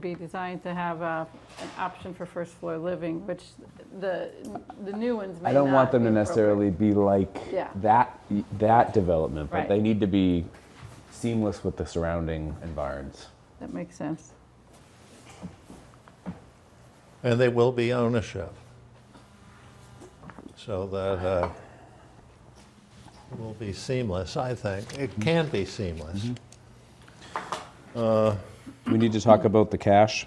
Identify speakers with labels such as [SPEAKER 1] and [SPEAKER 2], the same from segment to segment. [SPEAKER 1] be designed to have a, an option for first floor living, which the, the new ones may
[SPEAKER 2] I don't want
[SPEAKER 1] not
[SPEAKER 2] them
[SPEAKER 1] be
[SPEAKER 2] to necessarily be like
[SPEAKER 1] Yeah.
[SPEAKER 2] that, that development,
[SPEAKER 1] Right.
[SPEAKER 2] but they need to be seamless with the surrounding environs.
[SPEAKER 1] appropriate. That makes sense.
[SPEAKER 3] And they will be ownership. So that uh, it will be seamless, I think. It can be seamless.
[SPEAKER 2] We need to talk about the cash.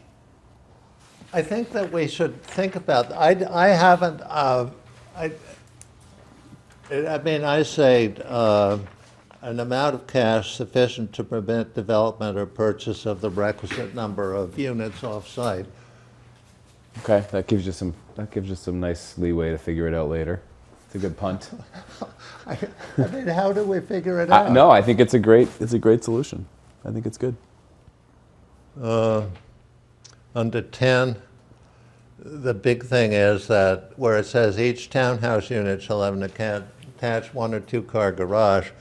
[SPEAKER 3] I think that we should think about, I, I haven't, uh, I, I mean, I say uh, an amount of cash sufficient to prevent development or purchase of the requisite number of units off-site.
[SPEAKER 2] Okay, that gives you some, that gives you some nice leeway to figure it out later. It's a good punt.
[SPEAKER 3] I I mean, how do we figure it
[SPEAKER 2] I-
[SPEAKER 3] out?
[SPEAKER 2] no, I think it's a great, it's a great solution. I think it's good.
[SPEAKER 3] Under 10, the big thing is that where it says each townhouse unit shall have an acca- attached one or two-car garage,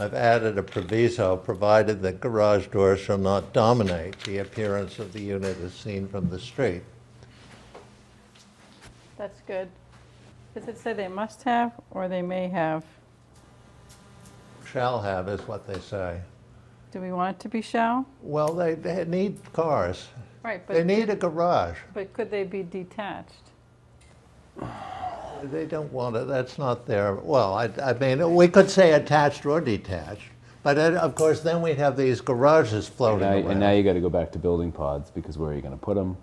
[SPEAKER 3] I've added a proviso, provided that garage doors shall not dominate the appearance of the unit as seen from the street.
[SPEAKER 1] That's good. Does it say they must have or they may have?
[SPEAKER 3] Shall have is what they say.
[SPEAKER 1] Do we want it to be shall?
[SPEAKER 3] Well, they, they need cars.
[SPEAKER 1] Right,
[SPEAKER 3] They
[SPEAKER 1] but,
[SPEAKER 3] need a garage.
[SPEAKER 1] but could they be detached?
[SPEAKER 3] They don't want it, that's not their, well, I, I mean, we could say attached or detached, but then, of course, then we'd have these garages floating
[SPEAKER 2] Now, and now
[SPEAKER 3] around.
[SPEAKER 2] you got to go back to building pods because where are you going to put them?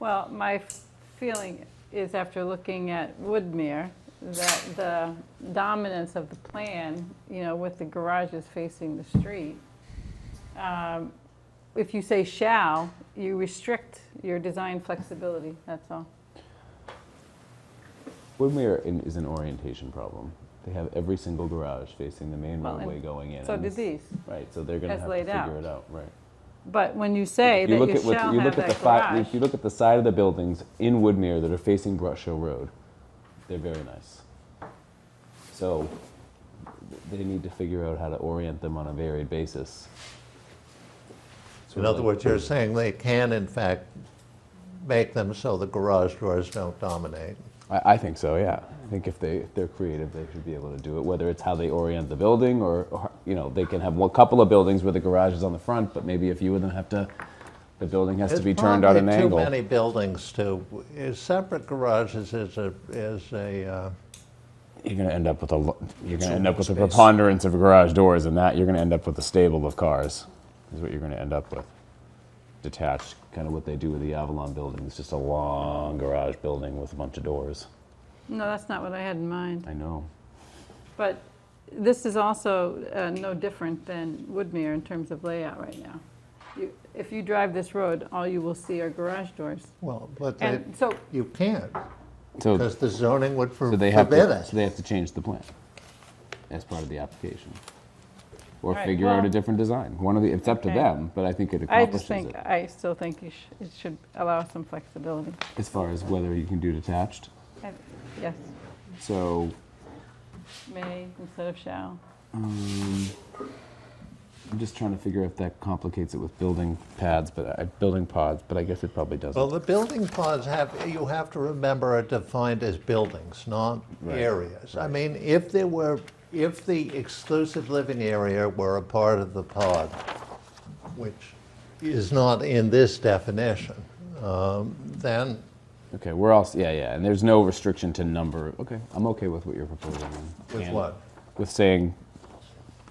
[SPEAKER 1] Well, my f- feeling is after looking at Woodmere, that the dominance of the plan, you know, with the garages facing the street, um, if you say shall, you restrict your design flexibility, that's all.
[SPEAKER 2] When we are in, is an orientation problem. They have every single garage facing the main
[SPEAKER 1] Well, and
[SPEAKER 2] roadway going in.
[SPEAKER 1] So
[SPEAKER 2] and
[SPEAKER 1] do
[SPEAKER 2] this-
[SPEAKER 1] these.
[SPEAKER 2] Right, so they're going to
[SPEAKER 1] as
[SPEAKER 2] have to
[SPEAKER 1] laid
[SPEAKER 2] figure
[SPEAKER 1] out.
[SPEAKER 2] it out, right?
[SPEAKER 1] But when you say
[SPEAKER 2] If
[SPEAKER 1] that
[SPEAKER 2] look
[SPEAKER 1] you
[SPEAKER 2] at what-
[SPEAKER 1] shall
[SPEAKER 2] you look
[SPEAKER 1] have
[SPEAKER 2] at the
[SPEAKER 1] that
[SPEAKER 2] fi-
[SPEAKER 1] garage,
[SPEAKER 2] If you look at the side of the buildings in Woodmere that are facing Brush Hill Road, they're very nice. So they need to figure out how to orient them on a varied basis.
[SPEAKER 3] In
[SPEAKER 2] Sort of
[SPEAKER 3] other
[SPEAKER 2] like-
[SPEAKER 3] words, you're saying they can, in fact, make them so the garage doors don't dominate.
[SPEAKER 2] I, I think so, yeah. I think if they, if they're creative, they should be able to do it, whether it's how they orient the building or, or, you know, they can have one couple of buildings where the garage is on the front, but maybe a few of them have to, the building has to be turned at an
[SPEAKER 3] There's
[SPEAKER 2] angle.
[SPEAKER 3] probably too many buildings to, is separate garages is a, is a, uh,
[SPEAKER 2] you're going to end up with a lo- you're going to end up with a
[SPEAKER 3] space.
[SPEAKER 2] preponderance of garage doors and that you're going to end up with a stable of cars is what you're going to end up with detached kind of what they do with the avalon building it's just a long garage building with a bunch of doors
[SPEAKER 1] no, that's not what I had in mind.
[SPEAKER 2] i know
[SPEAKER 1] But this is also uh, no different than Woodmere in terms of layout right now. You- If you drive this road, all you will see are garage doors.
[SPEAKER 3] well, but they-
[SPEAKER 1] And so,
[SPEAKER 3] you can't,
[SPEAKER 2] so,
[SPEAKER 3] because the zoning would for-
[SPEAKER 2] so they have
[SPEAKER 3] forbid
[SPEAKER 2] to,
[SPEAKER 3] it.
[SPEAKER 2] so they have to change the plan as part of the application or
[SPEAKER 1] Right,
[SPEAKER 2] figure out a
[SPEAKER 1] well-
[SPEAKER 2] different design one of the it's up to
[SPEAKER 1] Okay.
[SPEAKER 2] them but i think it
[SPEAKER 1] I
[SPEAKER 2] accomplishes
[SPEAKER 1] just think,
[SPEAKER 2] it
[SPEAKER 1] I still think you sh- it should allow some flexibility.
[SPEAKER 2] as far as whether you can do detached
[SPEAKER 1] I- Yes,
[SPEAKER 2] so
[SPEAKER 1] may instead of shall.
[SPEAKER 2] I'm just trying to figure if that complicates it with building pads, but I, building pods. But I guess it probably doesn't.
[SPEAKER 3] Well, the building pods have, you have to remember are defined as buildings, not
[SPEAKER 2] Right,
[SPEAKER 3] areas. I mean, if there were, if the exclusive living area were a part of the pod, which is not in this definition, um, then,
[SPEAKER 2] okay, we're all s- yeah, yeah. And there's no restriction to number. Okay, I'm okay with what you're proposing. then.
[SPEAKER 3] with
[SPEAKER 2] And
[SPEAKER 3] what?
[SPEAKER 2] With saying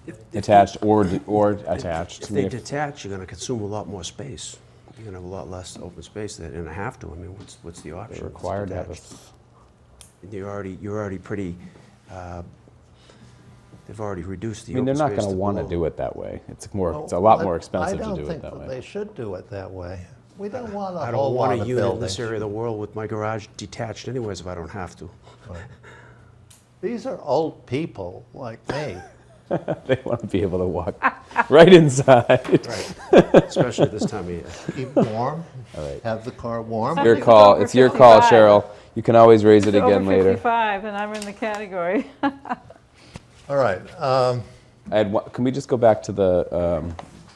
[SPEAKER 4] If- if they-
[SPEAKER 2] attached or d- or attached.
[SPEAKER 4] If they detach, you're gonna consume a lot more space. You're gonna have a lot less open space there, and I have to, I mean, what's, what's the option?
[SPEAKER 2] are
[SPEAKER 4] It's
[SPEAKER 2] required to have a
[SPEAKER 4] detached.
[SPEAKER 2] s-
[SPEAKER 4] And You're already, you're already pretty, uh, they've already reduced
[SPEAKER 2] I
[SPEAKER 4] the
[SPEAKER 2] mean,
[SPEAKER 4] open
[SPEAKER 2] they're
[SPEAKER 4] space.
[SPEAKER 2] not going to want to do it that way. It's more. It's a lot more expensive to do it
[SPEAKER 3] Oh, I
[SPEAKER 2] that
[SPEAKER 3] don't think that
[SPEAKER 2] way.
[SPEAKER 3] they should do it that way. We don't want
[SPEAKER 4] I
[SPEAKER 3] a
[SPEAKER 4] don't
[SPEAKER 3] whole lot
[SPEAKER 4] want a
[SPEAKER 3] of
[SPEAKER 4] unit in this
[SPEAKER 3] buildings.
[SPEAKER 4] area of the world with my garage detached anyways if I don't have to.
[SPEAKER 3] These are old people like me.
[SPEAKER 2] they want to be able to walk right inside.
[SPEAKER 4] Especially at this time of year.
[SPEAKER 3] Keep warm, have the car warm.
[SPEAKER 2] your
[SPEAKER 1] Something's
[SPEAKER 2] call.
[SPEAKER 1] over
[SPEAKER 2] It's your call,
[SPEAKER 1] 55.
[SPEAKER 2] Cheryl. You can always raise it again
[SPEAKER 1] Over
[SPEAKER 2] later.
[SPEAKER 1] 55, and I'm in the category.
[SPEAKER 3] All right, um,
[SPEAKER 2] I had one, can we just go back to the um,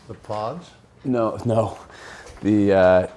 [SPEAKER 3] the pods?
[SPEAKER 2] No, no. The uh,